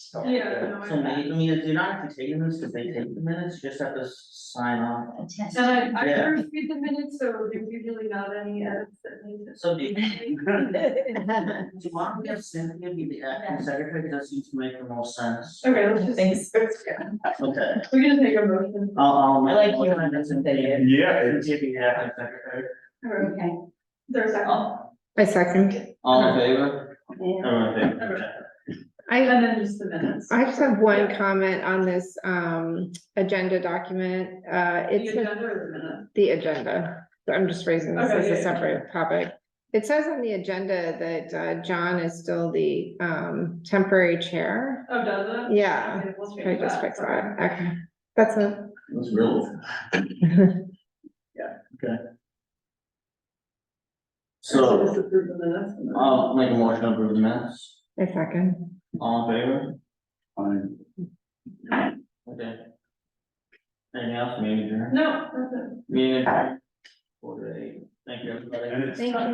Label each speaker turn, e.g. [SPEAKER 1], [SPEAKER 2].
[SPEAKER 1] stuff.
[SPEAKER 2] Yeah, no,
[SPEAKER 3] So
[SPEAKER 2] I-
[SPEAKER 3] maybe, I mean, you're not actually taking this, because they take the minutes, you just have to s- sign off.
[SPEAKER 4] Attest.
[SPEAKER 2] and I, I
[SPEAKER 3] Yeah.
[SPEAKER 2] first read the minutes, so there's usually not any edits that need to.
[SPEAKER 3] So do you, do you want to have Cynthia be the uh, acting secretary, because that seems to make the most sense,
[SPEAKER 2] Okay, let's just.
[SPEAKER 4] Thanks.
[SPEAKER 2] let's go.
[SPEAKER 3] okay,
[SPEAKER 2] We're gonna take a motion.
[SPEAKER 3] I'll, I'll.
[SPEAKER 4] I like you on this, Cynthia.
[SPEAKER 1] Yeah, it's,
[SPEAKER 3] Cynthia be the acting secretary,
[SPEAKER 2] Or-
[SPEAKER 4] Okay.
[SPEAKER 2] There's a second.
[SPEAKER 3] all,
[SPEAKER 5] I second.
[SPEAKER 3] Oh, all in favor? Everyone in favor?
[SPEAKER 2] Okay.
[SPEAKER 5] I,
[SPEAKER 2] And then just the minutes.
[SPEAKER 5] I just have one comment on this, um, agenda document. Uh,
[SPEAKER 2] The
[SPEAKER 5] it's
[SPEAKER 2] agenda or the minutes?
[SPEAKER 5] the agenda. So I'm just raising this
[SPEAKER 2] Okay,
[SPEAKER 5] as
[SPEAKER 2] yeah, yeah.
[SPEAKER 5] a separate topic. It says on the agenda that, uh, John is still the, um, temporary chair.
[SPEAKER 2] Oh, does it?
[SPEAKER 5] Yeah.
[SPEAKER 2] Okay, we'll change
[SPEAKER 5] Should I just fix
[SPEAKER 2] Okay.
[SPEAKER 5] that? Okay, that's a.
[SPEAKER 3] That's real.
[SPEAKER 2] So
[SPEAKER 3] So, Um,
[SPEAKER 2] just approve the minutes. and then-
[SPEAKER 3] I'll make a motion to approve the minutes,
[SPEAKER 5] I second.
[SPEAKER 3] all in favor,
[SPEAKER 1] fine.
[SPEAKER 3] okay. Anything else, maybe, Jerry?
[SPEAKER 2] No, that's it.
[SPEAKER 3] Meeting adjourned. Four to eight, thank you, everybody.
[SPEAKER 1] and it's
[SPEAKER 5] Thank you.